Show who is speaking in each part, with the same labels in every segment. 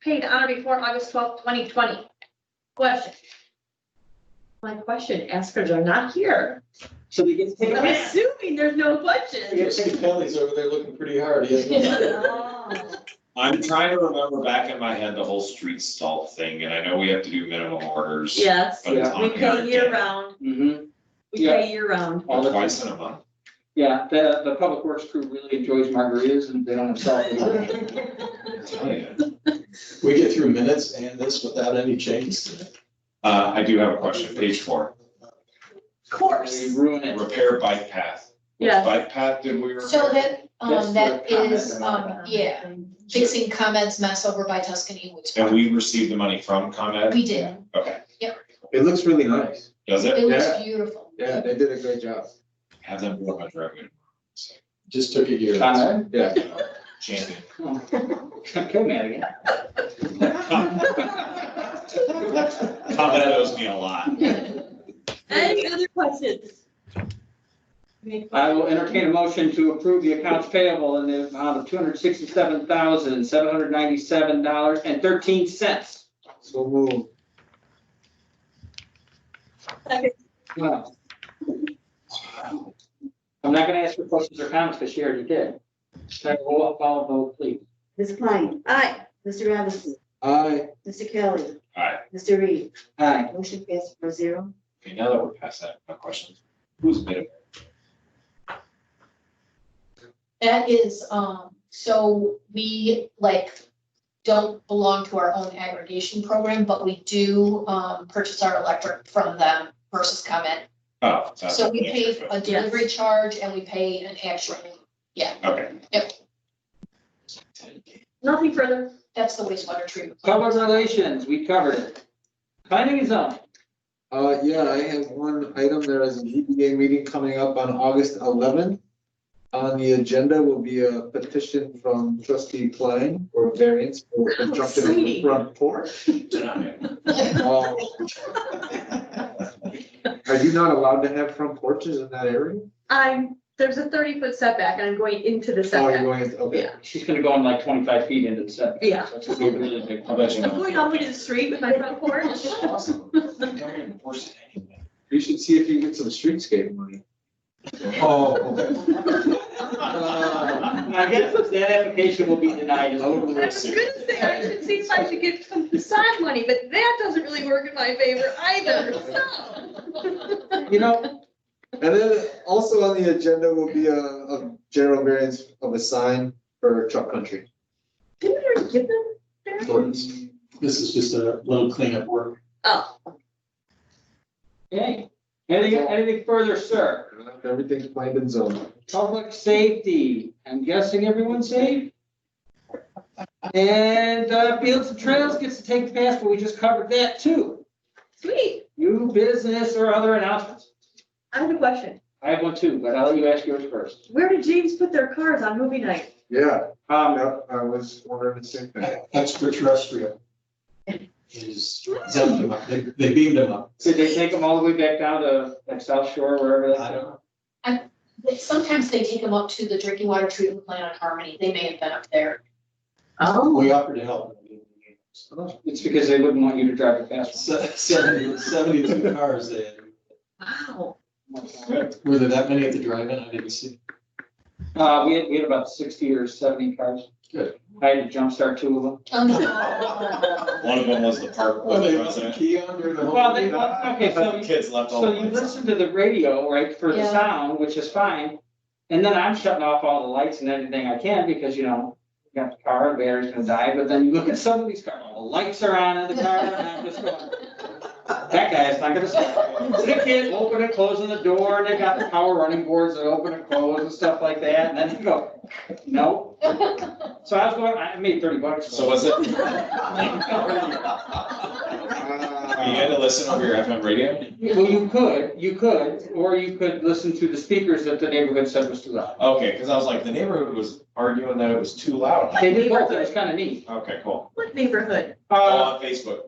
Speaker 1: paid on or before August twelfth, twenty twenty. Question. My question, askers are not here.
Speaker 2: So we get
Speaker 1: I'm
Speaker 2: paid,
Speaker 1: assuming there's no
Speaker 2: we
Speaker 1: question.
Speaker 2: get paid penalties over there looking pretty hard.
Speaker 3: Oh.
Speaker 4: I'm trying to remember back in my head the whole street stall thing, and I know we have to do minimum orders.
Speaker 1: Yes,
Speaker 4: But it's
Speaker 2: Yeah.
Speaker 4: on
Speaker 1: we
Speaker 4: there
Speaker 1: pay
Speaker 4: again,
Speaker 1: year round,
Speaker 2: Mm-hmm,
Speaker 1: we pay year round.
Speaker 2: All the-
Speaker 4: Twice in a month.
Speaker 2: yeah, the, the public works crew really enjoys margaritas and they don't have salt.
Speaker 4: Oh, yeah.
Speaker 5: We get through minutes and this without any changes.
Speaker 4: Uh, I do have a question, page four,
Speaker 1: Of course.
Speaker 2: They ruin it.
Speaker 4: repair bike path. Which
Speaker 1: Yeah.
Speaker 4: Bike path did we repair?
Speaker 3: So that, um,
Speaker 2: That's
Speaker 3: that
Speaker 2: the comment
Speaker 3: is,
Speaker 2: about
Speaker 3: um, yeah, fixing comments mess over by Tuscany Woods.
Speaker 4: And we received the money from ComEd?
Speaker 3: We did.
Speaker 4: Okay,
Speaker 5: It looks really nice.
Speaker 4: does it?
Speaker 3: It was
Speaker 5: Yeah.
Speaker 3: beautiful.
Speaker 5: Yeah, they did a great job.
Speaker 4: Have them blow my driveway.
Speaker 5: Just took a year.
Speaker 2: Time.
Speaker 5: Yeah.
Speaker 4: Champion.
Speaker 2: Kill me again.
Speaker 4: ComEd owes me a lot.
Speaker 1: Any other questions?
Speaker 2: I will entertain a motion to approve the accounts payable in the amount of two hundred sixty-seven thousand, seven hundred ninety-seven dollars and thirteen cents.
Speaker 5: So move.
Speaker 1: Second.
Speaker 2: Wow. I'm not gonna ask for questions or comments, because she already did. Can I roll up all vote, please?
Speaker 6: Ms. Klein. Aye. Mr. Robinson.
Speaker 5: Aye.
Speaker 6: Mr. Kelly.
Speaker 4: Aye.
Speaker 6: Mr. Reed.
Speaker 2: Aye.
Speaker 6: Motion passed four zero.
Speaker 4: Okay, now that we're past that, my question, who's made it?
Speaker 3: That is, um, so we like don't belong to our own aggregation program, but we do, um, purchase our electric from them versus comment.
Speaker 4: Oh. that's
Speaker 3: So we
Speaker 4: the answer,
Speaker 3: pay
Speaker 4: but-
Speaker 3: a delivery charge and we pay an actual,
Speaker 4: Okay.
Speaker 1: Nothing further.
Speaker 3: that's the wastewater treatment. plant.
Speaker 2: Public relations, we covered it. Planning and zoning,
Speaker 5: Uh, yeah, I have one item. There is a ZBA meeting coming up on August eleventh. On the agenda will be a petition from trustee Klein for variance for
Speaker 1: How
Speaker 5: construction of the
Speaker 1: exciting.
Speaker 5: front porch. Uh, Are you not allowed to have front porches in that area?
Speaker 1: I'm, there's a thirty foot setback and I'm going into the
Speaker 5: Oh, you're
Speaker 1: setback.
Speaker 5: going, okay.
Speaker 2: she's gonna go in like twenty-five feet into the set.
Speaker 1: Yeah.
Speaker 2: That's gonna be a really big
Speaker 4: I'll bet you
Speaker 1: I'm
Speaker 4: know.
Speaker 1: going all the way to the street with my front porch.
Speaker 4: Awesome. Don't enforce it anyway.
Speaker 5: You should see if you get some streetscape money. Oh, okay.
Speaker 4: Uh,
Speaker 2: I guess that application will be denied.
Speaker 1: I was gonna say, I should see if I should get some facade money, but that doesn't really work in my favor either, so.
Speaker 2: You know,
Speaker 5: And then also on the agenda will be a, a general variance of a sign for truck country.
Speaker 1: Didn't we already give them? their-
Speaker 7: Ordinance. This is just a little cleanup work.
Speaker 1: Oh,
Speaker 2: okay, anything, anything further, sir?
Speaker 5: Everything's planned and zoned.
Speaker 2: Public safety, I'm guessing everyone's safe? And uh, Fields and Trails gets to take the pass, but we just covered that too.
Speaker 1: sweet.
Speaker 2: New business or other announcements?
Speaker 1: I have a question.
Speaker 2: I have one too, but I'll let you ask yours first.
Speaker 1: Where did James put their cars on movie night?
Speaker 5: Yeah,
Speaker 2: Um,
Speaker 5: yeah, I was wondering the same thing.
Speaker 7: Extraterrestrial. Is, dumped him up. they, they beamed him up.
Speaker 2: did they take them all the way back down to like South Shore, wherever that's?
Speaker 7: I don't know.
Speaker 3: They- Sometimes they take them up to the drinking water treatment plant on Harmony. They may have been up there.
Speaker 1: Oh.
Speaker 7: We offered to help.
Speaker 2: It's because they wouldn't want you to drive the fast
Speaker 7: Se- Seventy, seventy-two cars there.
Speaker 1: Wow.
Speaker 2: one.
Speaker 7: Were there that many at the drive-in? I didn't see.
Speaker 2: Uh, we had, we had about sixty or seventy cars.
Speaker 7: Good.
Speaker 2: I had to jumpstart two of them.
Speaker 3: Oh, no.
Speaker 4: One of them was the park
Speaker 7: Well,
Speaker 4: board
Speaker 7: they left the
Speaker 4: president.
Speaker 7: key on during the whole.
Speaker 2: Well, they,
Speaker 7: meeting.
Speaker 2: well, okay, so you
Speaker 4: Kids left all
Speaker 2: So
Speaker 4: the
Speaker 2: you
Speaker 4: lights on.
Speaker 2: listen to the radio, right, for the
Speaker 3: Yeah.
Speaker 2: sound, which is fine, and then I'm shutting off all the lights and everything I can, because, you know, you got the car, the battery's gonna die, but then you look at some of these cars, all the lights are on in the car, and I'm just going, that guy's not gonna stop. So The kid open and closing the door, and they got the power running boards that open and close and stuff like that, and then you go, no. So I was going, I made thirty bucks.
Speaker 4: So was it, you had to listen over your FM radio?
Speaker 2: Well, you could, you could, or you could listen to the speakers that the neighborhood said was too loud.
Speaker 4: Okay, because I was like, the neighborhood was arguing that it was too loud.
Speaker 2: They did both, it was kind of neat.
Speaker 4: Okay, cool.
Speaker 1: What neighborhood?
Speaker 4: All
Speaker 2: Uh,
Speaker 4: on Facebook,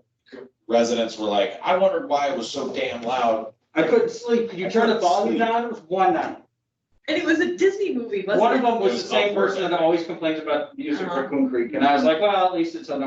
Speaker 4: residents were like, I wondered why it was so damn loud.
Speaker 2: I couldn't sleep, Could you turn the volume down, it was one night.
Speaker 1: And it was a Disney movie, wasn't it? Uh-huh.
Speaker 2: One of them was the same person that always complains about music for Coon Creek, and I was like, well, at least it's on